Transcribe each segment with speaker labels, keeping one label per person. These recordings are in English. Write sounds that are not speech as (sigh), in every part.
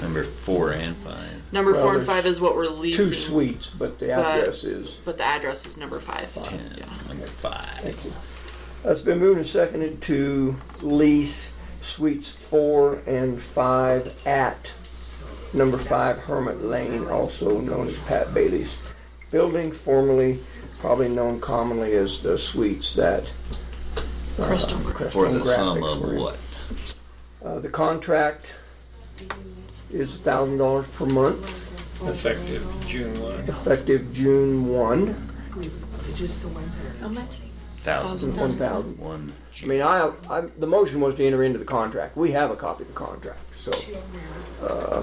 Speaker 1: Number four and five.
Speaker 2: Number
Speaker 3: Well,
Speaker 2: four and
Speaker 3: there's
Speaker 2: five is what we're
Speaker 3: Two
Speaker 2: leasing.
Speaker 3: suites, but the
Speaker 2: but-
Speaker 3: address is.
Speaker 2: But the address is number five.
Speaker 1: And
Speaker 2: Yeah.
Speaker 1: Number five.
Speaker 3: Thank you. Uh, It's been moved and seconded to lease suites four and five at number five Hermit Lane, also known as Pat Bailey's building, formerly probably known commonly as the suites that. uh,
Speaker 2: Crystal Grove.
Speaker 1: For the
Speaker 3: Crystal
Speaker 1: sum
Speaker 3: Graphics
Speaker 1: of
Speaker 3: were in.
Speaker 1: what?
Speaker 3: Uh, The contract is thousand dollars per month,
Speaker 4: effective June 1.
Speaker 3: effective June one,
Speaker 5: How much?
Speaker 1: Thousand.
Speaker 3: one thousand.
Speaker 1: One.
Speaker 3: I mean, I, I, the motion was to enter into the contract. We have a copy of the contract, so. uh,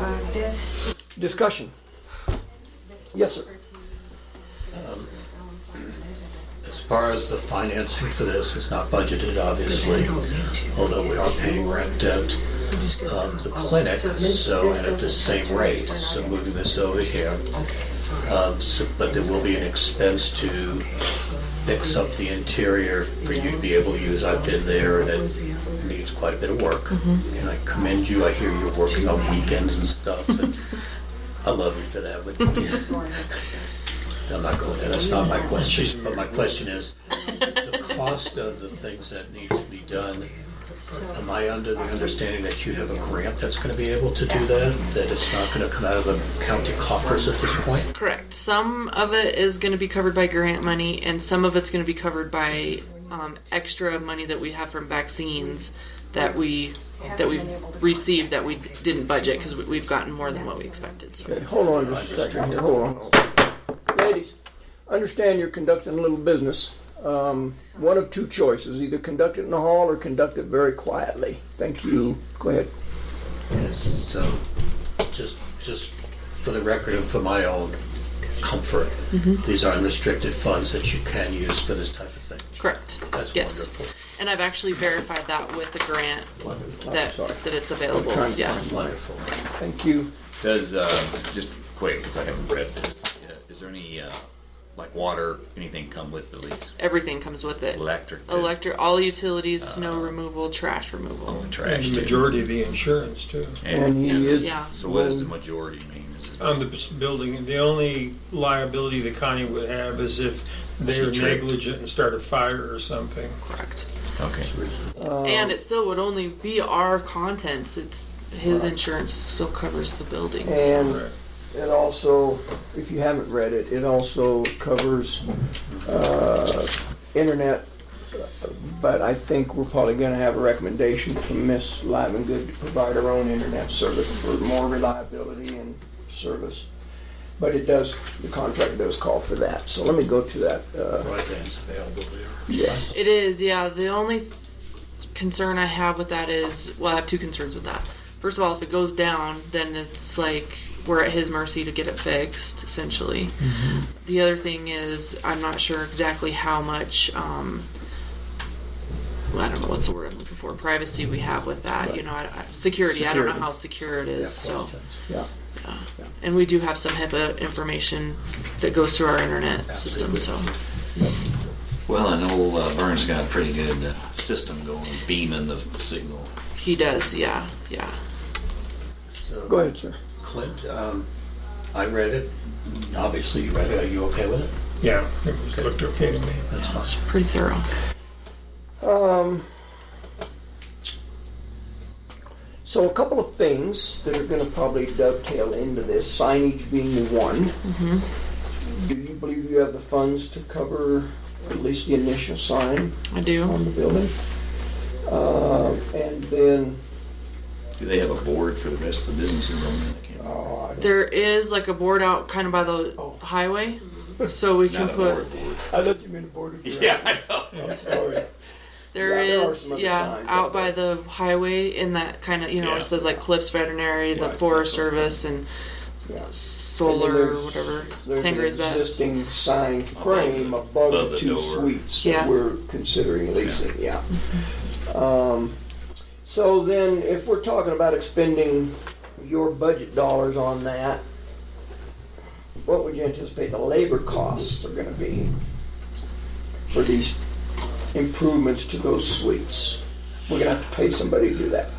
Speaker 5: Uh, this,
Speaker 3: Discussion. Yes, sir.
Speaker 6: As far as the financing for this, it's not budgeted, obviously, although we are paying rent at um, the clinic, so, and at the same rate, so moving this over here. Um, so- But there will be an expense to fix up the interior for you to be able to use. I've been there, and it needs quite a bit of work. And I commend you, I hear you're working on weekends and stuff, and I love you for that, but I'm not going there, that's not my question, but my question is, the cost of the things that need to be done, am I under the understanding that you have a grant that's gonna be able to do that? That it's not gonna come out of the county coffers at this point?
Speaker 2: Correct. Some of it is going to be covered by grant money, and some of it's going to be covered by um, extra money that we have from vaccines that we that we've received that we didn't budget because we've gotten more than what we expected. So.
Speaker 3: Okay, hold on just a second here, hold on, hold on. Ladies, understand you're conducting a little business. Um, one of two choices, either conduct it in the hall or conduct it very quietly. Thank you. Go ahead.
Speaker 6: Yes, so, just, just for the record and for my own comfort, these are unrestricted funds that you can use for this type of thing.
Speaker 2: Correct.
Speaker 6: That's
Speaker 2: Yes.
Speaker 6: wonderful.
Speaker 2: And I've actually verified that with the grant
Speaker 6: Wonderful,
Speaker 2: that
Speaker 3: Oh, sorry.
Speaker 2: that it's available.
Speaker 3: Trying to
Speaker 2: Yeah.
Speaker 6: wonderful.
Speaker 3: Thank you.
Speaker 1: Does, uh, just quick, because I haven't read this, uh, is there any, uh, like water, anything come with the lease?
Speaker 2: Everything comes with it.
Speaker 1: Electric? too?
Speaker 2: Electric, all utilities, snow removal, trash removal.
Speaker 1: Oh,
Speaker 4: And
Speaker 1: Trash
Speaker 4: the
Speaker 1: too?
Speaker 4: majority of the insurance too.
Speaker 3: And
Speaker 1: And
Speaker 3: he is.
Speaker 2: Yeah.
Speaker 1: so what does the majority mean? Is it-
Speaker 4: On the bus- building, the only liability the county would have is if they're
Speaker 1: She tripped.
Speaker 4: negligent and start a fire or something.
Speaker 2: Correct.
Speaker 1: Okay.
Speaker 2: And it still would only be our contents. It's, his insurance still covers the building. so-
Speaker 3: And It also, if you haven't read it, it also covers uh, internet, but I think we're probably going to have a recommendation from Ms. Livengood to provide her own internet service for more reliability and service. But it does, the contract does call for that, so let me go to that. uh,
Speaker 6: Broadband's available there.
Speaker 3: Yes.
Speaker 2: It is, yeah. The only th- concern I have with that is, well, I have two concerns with that. First of all, if it goes down, then it's like we're at his mercy to get it fixed, essentially.
Speaker 3: Mm-hmm.
Speaker 2: The other thing is, I'm not sure exactly how much, um, well, I don't know what's the word I'm looking for, privacy we have with that. You know, I, I- security, I don't know how
Speaker 3: Security.
Speaker 2: secure it is. So,
Speaker 3: Yeah.
Speaker 2: and we do have some HIPAA information that goes through our internet system. So,
Speaker 7: Well, I know uh, Vern's got a pretty good uh, system going, beaming the signal.
Speaker 2: he does, yeah, yeah.
Speaker 6: So-
Speaker 3: Go ahead, sir.
Speaker 6: Clint, um, I read it. Obviously, you read it. Are you okay with it?
Speaker 4: Yeah, it was, looked okay to me.
Speaker 6: That's fine.
Speaker 2: Pretty thorough.
Speaker 3: Um, so a couple of things that are going to probably dovetail into this, signage being the one. Do you believe you have the funds to cover at least the initial sign
Speaker 2: I do.
Speaker 3: on the building? Uh, and then,
Speaker 7: Do they have a board for the rest of the businesses on that? I can't remember.
Speaker 3: oh, I-
Speaker 2: There is like a board out kind of by the
Speaker 3: Oh.
Speaker 2: highway,
Speaker 3: Mm-hmm.
Speaker 2: so we can
Speaker 7: Not a board,
Speaker 2: put.
Speaker 7: board.
Speaker 3: I let you in the board
Speaker 1: (laughs)
Speaker 3: of directors.
Speaker 7: Yeah, I know.
Speaker 2: There
Speaker 3: Sorry. Yeah, there are
Speaker 2: is,
Speaker 3: some other
Speaker 2: yeah,
Speaker 3: signs
Speaker 2: out
Speaker 3: out
Speaker 2: by the highway in that kind of you know
Speaker 7: Yeah.
Speaker 2: it says like Cliffs Veterinary,
Speaker 7: Yeah, I
Speaker 2: the
Speaker 7: think
Speaker 2: Forest
Speaker 7: so.
Speaker 2: Service, and
Speaker 3: Yeah. And
Speaker 2: solar
Speaker 3: then
Speaker 2: or whatever.
Speaker 3: There's an
Speaker 2: Sangare's best.
Speaker 3: existing sign frame above
Speaker 7: Above
Speaker 3: the
Speaker 7: the
Speaker 3: two
Speaker 7: door.
Speaker 3: suites
Speaker 2: Yeah.
Speaker 3: that we're considering leasing, yeah. Um, So then, if we're talking about expending your budget dollars on that, what would you anticipate the labor costs are gonna be for these improvements to those suites? We're gonna have to pay somebody to do that,